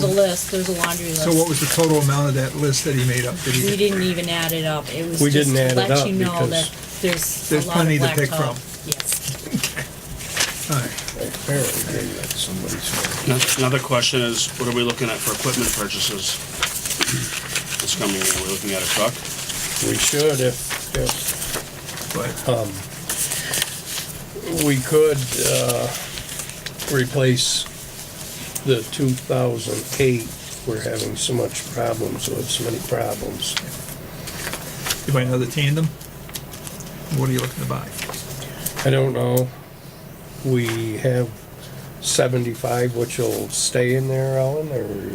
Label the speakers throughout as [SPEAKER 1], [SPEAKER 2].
[SPEAKER 1] There's a list, there's a laundry list.
[SPEAKER 2] So what was the total amount of that list that he made up? Did
[SPEAKER 1] We
[SPEAKER 2] he,
[SPEAKER 1] didn't even add it up. It was
[SPEAKER 3] We
[SPEAKER 1] just
[SPEAKER 3] didn't
[SPEAKER 1] to
[SPEAKER 3] add it
[SPEAKER 1] let
[SPEAKER 3] up
[SPEAKER 1] you know
[SPEAKER 3] because
[SPEAKER 1] that there's a
[SPEAKER 2] There's
[SPEAKER 1] lot of
[SPEAKER 2] plenty to pick
[SPEAKER 1] blacktop.
[SPEAKER 2] from.
[SPEAKER 1] Yes.
[SPEAKER 2] all right.
[SPEAKER 3] Apparently, maybe that's somebody's fault.
[SPEAKER 4] Another question is, what are we looking at for equipment purchases? This coming year, we're looking at a truck?
[SPEAKER 3] We should if, if
[SPEAKER 2] But
[SPEAKER 3] we could, uh, replace the two thousand eight. We're having so much problems with, so many problems.
[SPEAKER 2] you buy another tandem? What are you looking to buy?
[SPEAKER 3] I don't know. We have seventy-five, which will stay in there, Ellen, or?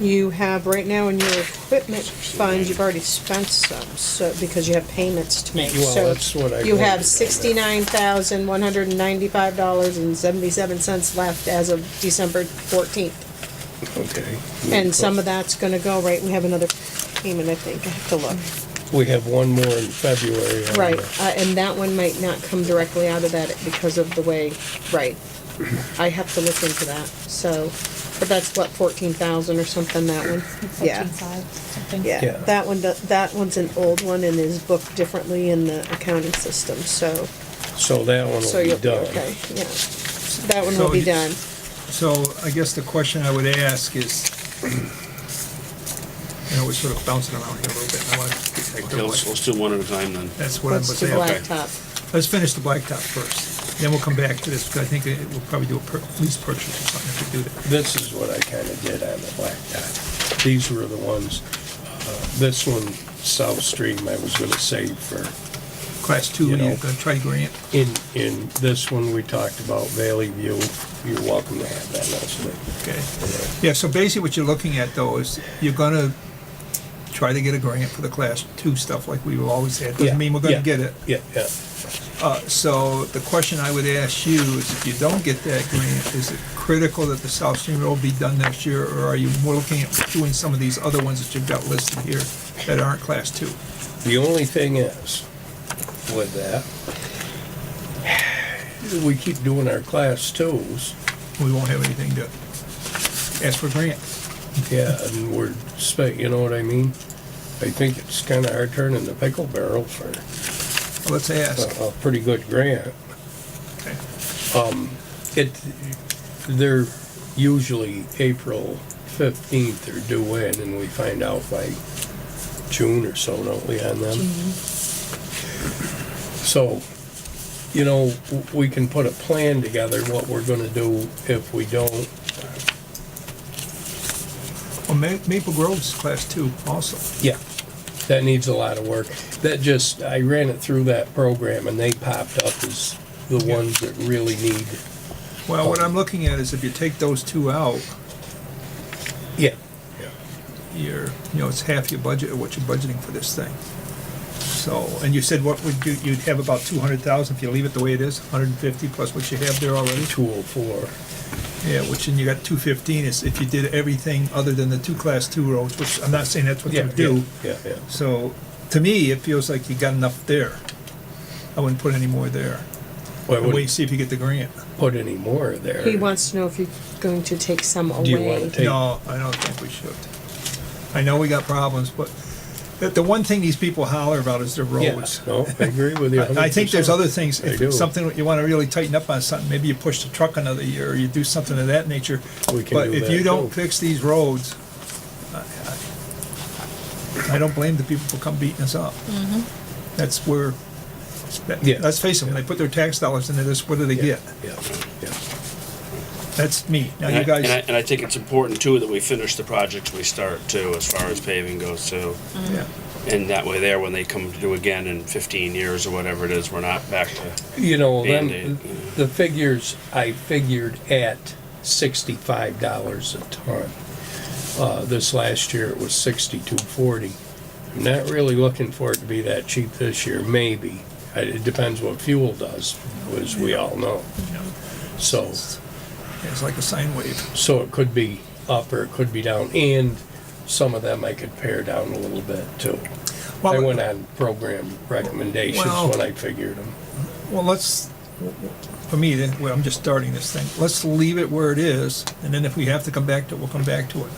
[SPEAKER 5] You have, right now in your equipment fund, you've already spent some, so, because you have payments to make.
[SPEAKER 3] Well,
[SPEAKER 5] So
[SPEAKER 3] that's what I voted
[SPEAKER 5] You
[SPEAKER 3] on.
[SPEAKER 5] have sixty-nine thousand, one hundred and ninety-five dollars and seventy-seven cents left as of December fourteenth.
[SPEAKER 3] Okay.
[SPEAKER 5] And some of that's gonna go, right, we have another payment, I think, I have to look.
[SPEAKER 3] We have one more in February. on
[SPEAKER 5] Right,
[SPEAKER 3] the-
[SPEAKER 5] uh, and that one might not come directly out of that because of the way, right. I have to look into that, so, but that's what, fourteen thousand or something, that one? Yeah.
[SPEAKER 1] 14.5, something.
[SPEAKER 3] Yeah.
[SPEAKER 5] Yeah, that one, do- that one's an old one and is booked differently in the accounting system, so,
[SPEAKER 3] So that one
[SPEAKER 5] so
[SPEAKER 3] will
[SPEAKER 5] you'll
[SPEAKER 3] be
[SPEAKER 5] be
[SPEAKER 3] done.
[SPEAKER 5] okay, yeah. That one
[SPEAKER 2] So
[SPEAKER 5] will be
[SPEAKER 2] you-
[SPEAKER 5] done.
[SPEAKER 2] So I guess the question I would ask is, you know, we're sort of bouncing around here a little bit. and I want to take
[SPEAKER 4] Okay,
[SPEAKER 2] the
[SPEAKER 4] let's,
[SPEAKER 2] one.
[SPEAKER 4] let's do one at a time then.
[SPEAKER 2] That's what I'm
[SPEAKER 5] Let's do
[SPEAKER 2] saying.
[SPEAKER 4] black.
[SPEAKER 5] blacktop.
[SPEAKER 2] Let's finish the blacktop first. Then we'll come back to this, because I think it- we'll probably do a per- lease purchase or something if we do that.
[SPEAKER 3] This is what I kind of did on the blacktop. These were the ones, uh, this one, South Stream, I was gonna save for,
[SPEAKER 2] Class two,
[SPEAKER 3] You
[SPEAKER 2] you're
[SPEAKER 3] know.
[SPEAKER 2] going to try to grant.
[SPEAKER 3] in, in this one, we talked about Valley View. You're welcome to have that also.
[SPEAKER 2] Okay. Yeah, so basically what you're looking at though is you're gonna try to get a grant for the class two stuff like we've always had.
[SPEAKER 3] Yeah,
[SPEAKER 2] Doesn't mean we're gonna
[SPEAKER 3] yeah,
[SPEAKER 2] get it.
[SPEAKER 3] Yeah, yeah.
[SPEAKER 2] Uh, so the question I would ask you is if you don't get that grant, is it critical that the South Stream Road be done next year? Or are you more looking at doing some of these other ones that you've got listed here that aren't class two?
[SPEAKER 3] The only thing is, with that, we keep doing our class twos,
[SPEAKER 2] We won't have anything to ask for grant.
[SPEAKER 3] yeah, and we're spent, you know what I mean? I think it's kind of our turn in the pickle barrel for
[SPEAKER 2] Well, Let's ask.
[SPEAKER 3] a, a pretty good grant. Um,
[SPEAKER 2] Okay.
[SPEAKER 3] It, they're usually April fifteenth they're due in, and we find out by June or so, don't we, on them? So, you know, w- we can put a plan together, what we're gonna do if we don't,
[SPEAKER 2] Well, Ma- Maple Grove's class two also.
[SPEAKER 3] yeah, that needs a lot of work. That just, I ran it through that program, and they popped up as the ones that really need,
[SPEAKER 2] Well, what I'm looking at is if you take those two out,
[SPEAKER 3] yeah,
[SPEAKER 2] your, you know, it's half your budget of what you're budgeting for this thing. So, and you said what would you, you'd have about two hundred thousand if you leave it the way it is, hundred and fifty plus what you have there already?
[SPEAKER 3] two oh four.
[SPEAKER 2] Yeah, which, and you got two fifteen is if you did everything other than the two class two roads, which I'm not saying that's what you
[SPEAKER 3] Yeah,
[SPEAKER 2] would do.
[SPEAKER 3] Yeah, yeah.
[SPEAKER 2] So, to me, it feels like you got enough there. I wouldn't put any more there.
[SPEAKER 3] Why
[SPEAKER 2] And wait and
[SPEAKER 3] would
[SPEAKER 2] see if you get the grant.
[SPEAKER 3] put any more there?
[SPEAKER 5] He wants to know if you're going to take some away.
[SPEAKER 3] Do you wanna take-
[SPEAKER 2] No, I don't think we should. I know we got problems, but the, the one thing these people holler about is their
[SPEAKER 3] Yeah,
[SPEAKER 2] roads.
[SPEAKER 3] No, I agree with you.
[SPEAKER 2] I I think there's
[SPEAKER 3] 100%.
[SPEAKER 2] other things,
[SPEAKER 3] I do.
[SPEAKER 2] if something, you wanna really tighten up on something, maybe you push the truck another year, or you do something of that nature.
[SPEAKER 3] We can
[SPEAKER 2] But
[SPEAKER 3] do
[SPEAKER 2] if
[SPEAKER 3] that,
[SPEAKER 2] you don't
[SPEAKER 3] too.
[SPEAKER 2] fix these roads, I- I I don't blame the people for come beating us up. That's where, that-
[SPEAKER 3] Yeah.
[SPEAKER 2] let's face it, when they put their tax dollars into this, what do they
[SPEAKER 3] Yeah,
[SPEAKER 2] get?
[SPEAKER 3] yeah, yeah.
[SPEAKER 2] That's me. Now
[SPEAKER 4] And I-
[SPEAKER 2] you
[SPEAKER 4] And I,
[SPEAKER 2] guys,
[SPEAKER 4] and I think it's important too that we finish the projects we start too, as far as paving goes too.
[SPEAKER 2] yeah,
[SPEAKER 4] And that way there, when they come to do again in fifteen years or whatever it is, we're not back to,
[SPEAKER 3] You know, then,
[SPEAKER 4] Band-Aid.
[SPEAKER 3] the figures I figured at sixty-five dollars a ton. Uh, this last year it was sixty-two forty. I'm not really looking for it to be that cheap this year, maybe. I- It depends what fuel does, as we all know. So,
[SPEAKER 2] it's like a sine wave.
[SPEAKER 3] so it could be up or it could be down, and some of them I could pare down a little bit too. I
[SPEAKER 2] Well,
[SPEAKER 3] went on program recommendations
[SPEAKER 2] Well-
[SPEAKER 3] when I figured them.
[SPEAKER 2] Well, let's, for me, then, well, I'm just starting this thing. Let's leave it where it is, and then if we have to come back to it, we'll come back to it.